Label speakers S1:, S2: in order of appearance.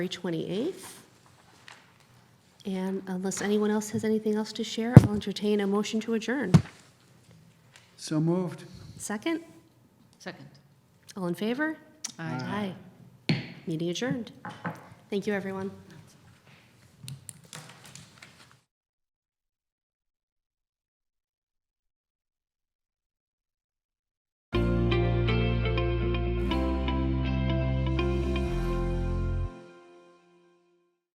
S1: February 28th. And unless anyone else has anything else to share, I'll entertain a motion to adjourn.
S2: So moved.
S1: Second?
S3: Second.
S1: All in favor?
S3: Aye.
S1: Aye. Meeting adjourned. Thank you, everyone.